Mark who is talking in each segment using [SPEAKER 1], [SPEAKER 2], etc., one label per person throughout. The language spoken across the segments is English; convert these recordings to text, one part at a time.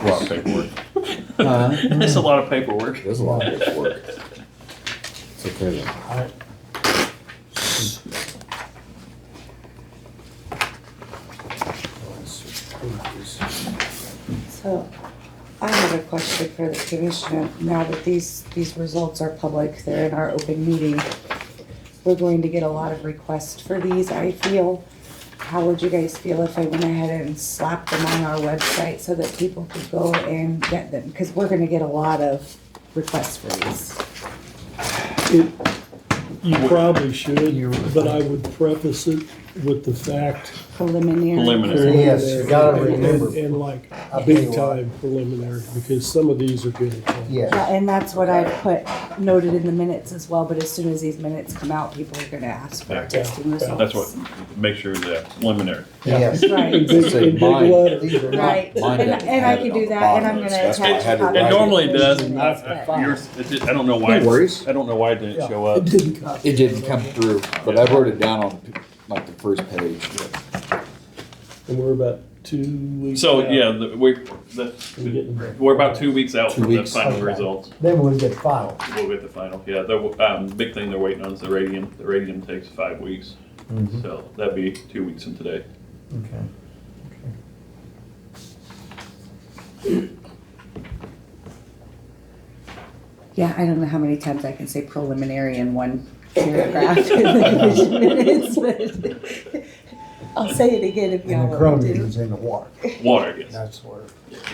[SPEAKER 1] A lot of paperwork.
[SPEAKER 2] Huh?
[SPEAKER 3] That's a lot of paperwork.
[SPEAKER 1] There's a lot of paperwork. It's okay though.
[SPEAKER 2] Alright.
[SPEAKER 4] So I have a question for the commissioner. Now that these, these results are public, they're in our open meeting. We're going to get a lot of requests for these, I feel. How would you guys feel if I went ahead and slapped them on our website so that people could go and get them? Because we're gonna get a lot of requests for these.
[SPEAKER 5] It, you probably should, but I would preface it with the fact.
[SPEAKER 4] Preliminary.
[SPEAKER 3] Preliminary.
[SPEAKER 2] Yes, you gotta remember.
[SPEAKER 5] And- And like,
[SPEAKER 2] I'll tell you
[SPEAKER 5] big
[SPEAKER 2] what.
[SPEAKER 5] time preliminary, because some of these are gonna come.
[SPEAKER 2] Yeah,
[SPEAKER 4] Yeah, and that's what I put noted in the minutes as well, but as soon as these minutes come out, people are gonna ask for
[SPEAKER 3] Yeah.
[SPEAKER 4] testing results.
[SPEAKER 3] That's what, make sure the preliminary.
[SPEAKER 2] yes.
[SPEAKER 4] Right.
[SPEAKER 5] In big,
[SPEAKER 1] Say
[SPEAKER 5] in big
[SPEAKER 1] mine.
[SPEAKER 5] letters.
[SPEAKER 2] These are not-
[SPEAKER 4] Right,
[SPEAKER 1] Mine
[SPEAKER 4] and,
[SPEAKER 1] doesn't
[SPEAKER 4] and I
[SPEAKER 1] have it
[SPEAKER 4] can
[SPEAKER 1] on
[SPEAKER 4] do
[SPEAKER 1] the
[SPEAKER 4] that,
[SPEAKER 1] bottom
[SPEAKER 4] and I'm
[SPEAKER 1] of it,
[SPEAKER 4] gonna
[SPEAKER 1] so that's
[SPEAKER 4] attach.
[SPEAKER 1] why I had to
[SPEAKER 4] a copy
[SPEAKER 1] write
[SPEAKER 3] It
[SPEAKER 4] of
[SPEAKER 3] normally
[SPEAKER 4] the
[SPEAKER 3] does.
[SPEAKER 4] minutes,
[SPEAKER 3] I-
[SPEAKER 4] but-
[SPEAKER 3] I yours- it did- I don't know why.
[SPEAKER 1] No worries.
[SPEAKER 3] I don't know why it didn't show up.
[SPEAKER 5] It didn't come.
[SPEAKER 1] It didn't come through, but I wrote it down on like the first page.
[SPEAKER 5] And we're about two weeks.
[SPEAKER 3] So,
[SPEAKER 5] out.
[SPEAKER 3] yeah, the- we, the,
[SPEAKER 5] We're getting-
[SPEAKER 3] we're about two weeks out
[SPEAKER 1] Two
[SPEAKER 3] from the
[SPEAKER 1] weeks.
[SPEAKER 3] final
[SPEAKER 2] Okay.
[SPEAKER 3] results.
[SPEAKER 2] Then we'll get final.
[SPEAKER 3] We'll get the final, yeah. The, um, big thing they're waiting on is the radium. The radium takes five weeks,
[SPEAKER 1] Mm-hmm.
[SPEAKER 2] Mhm.
[SPEAKER 3] so that'd be two weeks from today.
[SPEAKER 2] Okay.
[SPEAKER 4] Yeah, I don't know how many times I can say preliminary in one paragraph in the commission minutes, but I'll say it again if
[SPEAKER 2] And
[SPEAKER 4] y'all
[SPEAKER 2] the
[SPEAKER 4] want me
[SPEAKER 2] chromium
[SPEAKER 4] to.
[SPEAKER 2] is in the water.
[SPEAKER 3] Water, I guess.
[SPEAKER 2] That's where,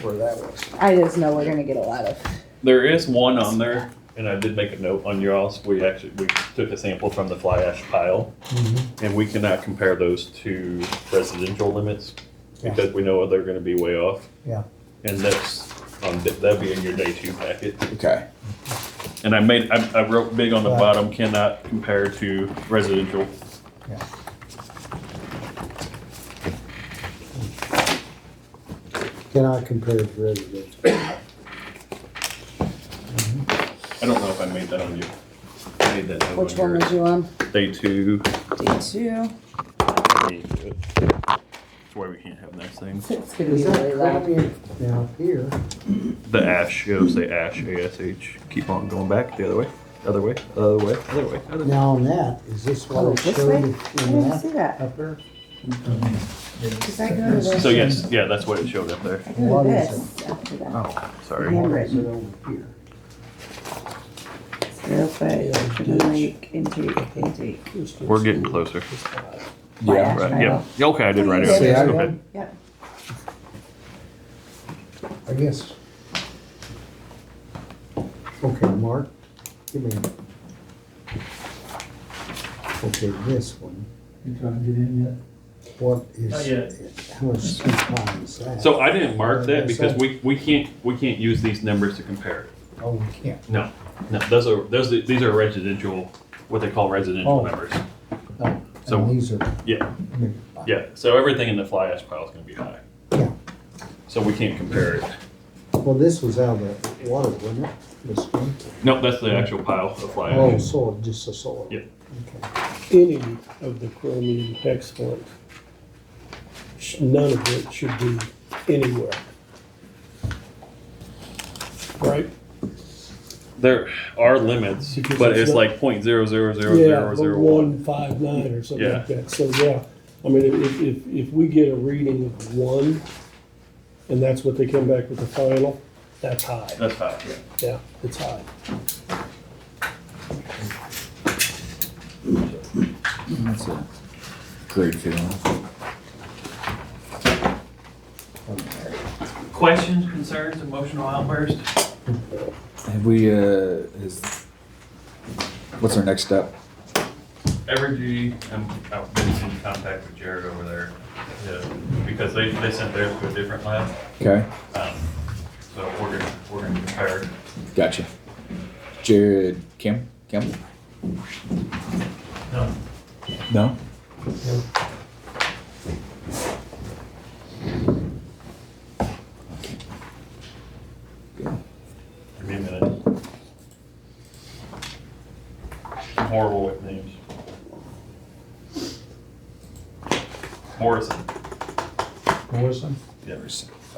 [SPEAKER 2] where that was.
[SPEAKER 4] I just know we're gonna get a lot of,
[SPEAKER 3] There is one on there, and I did make a note on y'all's. We actually, we took a sample from the fly ash pile. And we cannot compare those to residential limits
[SPEAKER 2] Yeah.
[SPEAKER 3] because we know they're gonna be way off.
[SPEAKER 2] Yeah.
[SPEAKER 3] And that's, um, th- that'd be in your day two packet.
[SPEAKER 1] Okay.
[SPEAKER 3] And I made, I, I wrote big on the
[SPEAKER 2] Right.
[SPEAKER 3] bottom, cannot compare to residential.
[SPEAKER 2] Cannot compare it to residential.
[SPEAKER 3] I don't know if I made that on you. I made that note on
[SPEAKER 4] which one
[SPEAKER 3] your
[SPEAKER 4] was you on?
[SPEAKER 3] Day two.
[SPEAKER 4] Day two.
[SPEAKER 3] That's why we can't have nice things.
[SPEAKER 4] It's gonna be
[SPEAKER 2] Is
[SPEAKER 4] really
[SPEAKER 2] that
[SPEAKER 4] loud.
[SPEAKER 2] chromium down here?
[SPEAKER 3] The ash, it'll say ash, A-S-H. Keep on going back the other way, other way, other way, other way, other way.
[SPEAKER 2] Now on that, is this what
[SPEAKER 4] Oh,
[SPEAKER 2] it
[SPEAKER 4] this
[SPEAKER 2] showed
[SPEAKER 4] way?
[SPEAKER 2] in
[SPEAKER 4] I didn't
[SPEAKER 2] that
[SPEAKER 4] see that.
[SPEAKER 2] up there?
[SPEAKER 4] Cause I go to this,
[SPEAKER 3] So yes, yeah, that's what it showed up there.
[SPEAKER 4] I go
[SPEAKER 2] What
[SPEAKER 4] to
[SPEAKER 2] is
[SPEAKER 4] this after that.
[SPEAKER 3] Oh, sorry.
[SPEAKER 4] Handwritten.
[SPEAKER 2] over here?
[SPEAKER 4] Real quick, from like intake, intake.
[SPEAKER 3] We're getting closer.
[SPEAKER 1] Yeah.
[SPEAKER 3] Right, Uh, yeah. Yeah, Okay, I did write it out.
[SPEAKER 1] See, I-
[SPEAKER 3] Go ahead.
[SPEAKER 4] Yep.
[SPEAKER 2] I guess. Okay, Mark, give me. Okay, this one,
[SPEAKER 6] You trying to get in yet?
[SPEAKER 2] what
[SPEAKER 6] Not
[SPEAKER 2] is,
[SPEAKER 6] yet.
[SPEAKER 2] how much time is that?
[SPEAKER 3] So I didn't mark that because we, we can't, we can't use these numbers to compare.
[SPEAKER 2] Oh, we can't,
[SPEAKER 3] No, no, those are, those, are- these are residential, what they call residential
[SPEAKER 2] Oh.
[SPEAKER 3] numbers.
[SPEAKER 2] no,
[SPEAKER 3] So-
[SPEAKER 2] Oh, and these are.
[SPEAKER 3] Yeah,
[SPEAKER 2] new.
[SPEAKER 3] yeah. So everything in the fly ash pile is gonna be high.
[SPEAKER 2] Yeah.
[SPEAKER 3] So we can't compare it.
[SPEAKER 2] Well, this was out of the water, wasn't it, this one?
[SPEAKER 3] No, that's the actual pile of fly
[SPEAKER 2] Oh,
[SPEAKER 3] ash.
[SPEAKER 2] soil, just the soil.
[SPEAKER 3] Yeah.
[SPEAKER 2] Okay.
[SPEAKER 5] Any of the chromium hexfluoride, sh- none of it should be anywhere. Right?
[SPEAKER 3] There are limits,
[SPEAKER 5] Oh. Because
[SPEAKER 3] but
[SPEAKER 5] it's
[SPEAKER 3] it's
[SPEAKER 5] not-
[SPEAKER 3] like point zero zero zero
[SPEAKER 5] Yeah,
[SPEAKER 3] zero zero
[SPEAKER 5] but
[SPEAKER 3] one.
[SPEAKER 5] one five nine or something
[SPEAKER 3] Yeah.
[SPEAKER 5] like that, so yeah, I mean, if, if, if we get a reading of one, and that's what they come back with the final, that's high,
[SPEAKER 3] That's high, yeah.
[SPEAKER 5] yeah, it's high.
[SPEAKER 1] That's a great feeling.
[SPEAKER 7] Questions, concerns, emotional outburst?
[SPEAKER 1] Have we, uh, is, what's our next step?
[SPEAKER 3] Evergy, I'm, um, I've been in contact with Jared over there, yeah, because they, they sent theirs to a different lab.
[SPEAKER 1] Okay.
[SPEAKER 3] Um, So we're gonna, we're gonna compare.
[SPEAKER 1] Gotcha. Jared, Kim, Kim?
[SPEAKER 3] No.
[SPEAKER 1] No?
[SPEAKER 3] Give me a minute. I'm horrible with names. Morrison.
[SPEAKER 2] Melissa?
[SPEAKER 1] Never seen.